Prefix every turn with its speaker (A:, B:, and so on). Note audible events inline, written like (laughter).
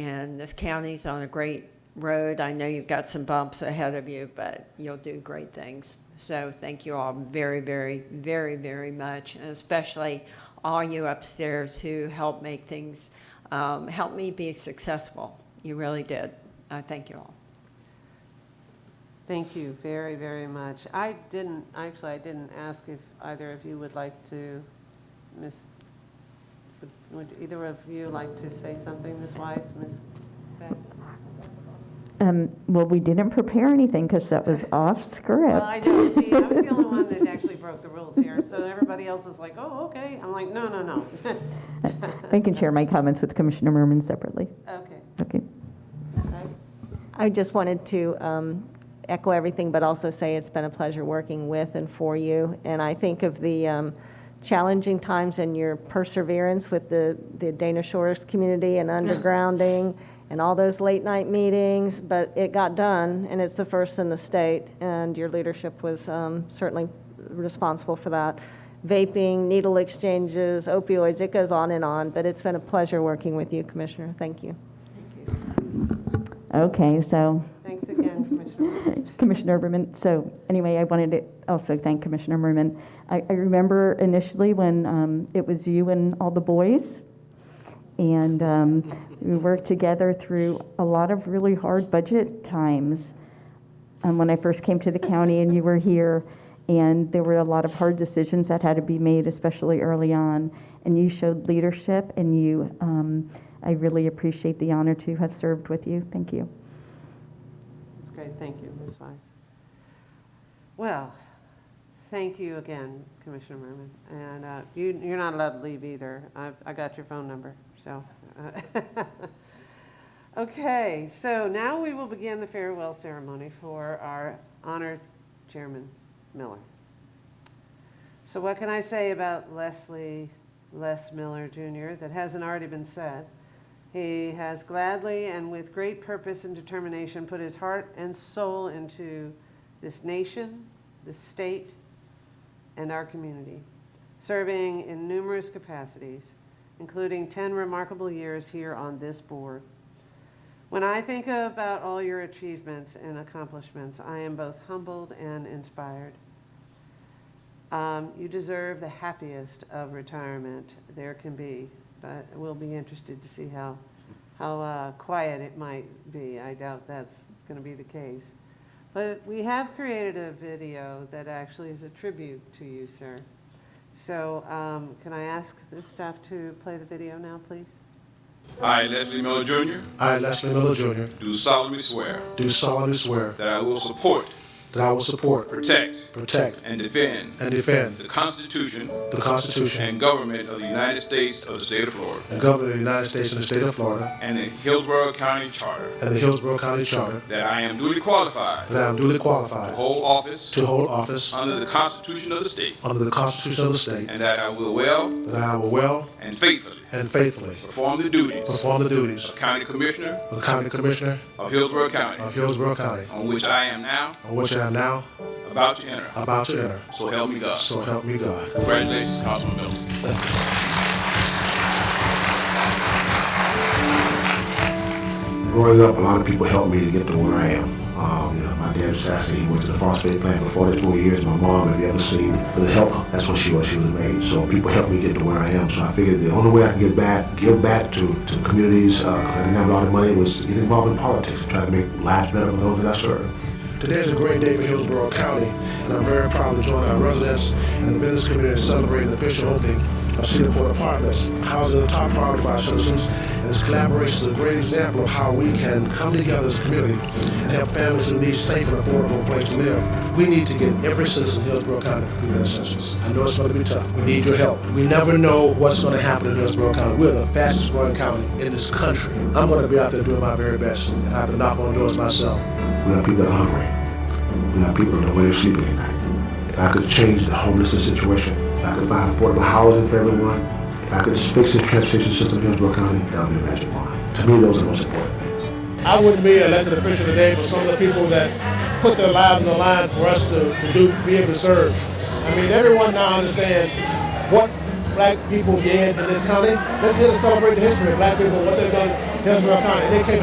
A: And this county's on a great road. I know you've got some bumps ahead of you, but you'll do great things. So thank you all very, very, very, very much, and especially all you upstairs who helped make things, um, help me be successful. You really did. I thank you all.
B: Thank you very, very much. I didn't, actually, I didn't ask if either of you would like to, Ms., would- would either of you like to say something, Ms. Wise, Ms. Beck?
C: Um, Well, we didn't prepare anything because that was off
B: Well, I
C: script.
B: know, see, I was the only one that actually broke the rules here, so everybody else was like, oh, okay. I'm like, no, no, no. (laughs)
C: I can share my comments with Commissioner Merman separately.
B: Okay.
C: Okay.
B: Okay.
D: I just wanted to um, echo everything, but also say it's been a pleasure working with and for you. And I think of the um, challenging times and your perseverance with the the Dana Shores community and undergrounding and all those late-night meetings, but it got done, and it's the first in the state, and your leadership was um, certainly responsible for that. Vaping, needle exchanges, opioids, it goes on and on, but it's been a pleasure working with you, Commissioner. Thank you.
C: Okay, so
B: Thanks again, Commissioner.
C: Commissioner Merman, so anyway, I wanted to also thank Commissioner Merman. I I remember initially when um, it was you and all the boys, and um, we worked together through a lot of really hard budget times. um, when I first came to the county and you were here, and there were a lot of hard decisions that had to be made, especially early on. And you showed leadership, and you, um, I really appreciate the honor to have served with you. Thank you.
B: That's great, thank you, Ms. Wise. Well, thank you again, Commissioner Merman, and uh, you, you're not allowed to leave either. I've, I got your phone number, so. uh, (laughs) Okay, so now we will begin the farewell ceremony for our honored Chairman Miller. So what can I say about Leslie Les Miller Jr. that hasn't already been said? He has gladly and with great purpose and determination put his heart and soul into this nation, this state, and our community, serving in numerous capacities, including 10 remarkable years here on this board. When I think about all your achievements and accomplishments, I am both humbled and inspired. Um, you deserve the happiest of retirement there can be, but we'll be interested to see how, how uh, quiet it might be. I doubt that's going to be the case. But we have created a video that actually is a tribute to you, sir. So um, can I ask the staff to play the video now, please?
E: I, Leslie Miller Jr.,
F: I, Leslie Miller Jr.,
E: do solemnly swear
F: do solemnly swear
E: that I will support,
F: that I will support,
E: protect,
F: protect,
E: and defend
F: and defend
E: the Constitution
F: the Constitution
E: and government of the United States of the State of Florida
F: and government of the United States and the state of Florida
E: and the Hillsborough County Charter,
F: and the Hillsborough County Charter,
E: that I am duly qualified
F: that I am duly
E: to
F: qualified
E: hold office
F: to hold office
E: under the Constitution of the state,
F: under the Constitution of the state,
E: and that I will well
F: that I will well
E: and faithfully
F: and faithfully
E: perform the duties
F: perform the duties
E: of County Commissioner
F: of the County Commissioner
E: of Hillsborough
F: of
E: County,
F: Hillsborough County,
E: on which I am now
F: on which I am now
E: about to enter.
F: about to enter.
E: So help me God.
F: So help me God.
E: Congratulations, Councilman Miller.
G: Growing up, a lot of people helped me to get to where I am. Um, you know, my dad was assassinated. He went to the foster care plant for 44 years. My mom, if you ever seen the help, that's what she was. She was made. So people helped me get to where I am. So I figured the only way I can get back, give back to, to communities, because I didn't have a lot of money, was to get involved in politics and try to make lives better for those that I serve.
F: Today is a great day for Hillsborough County, and I'm very proud to join our residents and the business community in celebrating the official opening of Cedarport Apartments, housing the top priority for our citizens. And this collaboration is a great example of how we can come together as a community and help families who need safe and affordable place to live. We need to get every citizen in Hillsborough County to complete that census. I know it's going to be tough. We need your help. We never know what's going to happen in Hillsborough County. We're the fastest growing county in this country. I'm going to be out there doing my very best, and I have to knock on doors myself.
G: We got people that are hungry. We got people that don't know where they're sleeping at night. If I could change the homelessness situation, if I could find affordable housing for everyone, if I could fix the transportation system in Hillsborough County, that would be a magic wand. To me, those are the most important things.
F: I wouldn't be an elected official today for some of the people that put their lives on the line for us to, to do, be able to serve. I mean, everyone now understands what black people did in this county. Let's here to celebrate the history of black people, what they've done in Hillsborough County. They came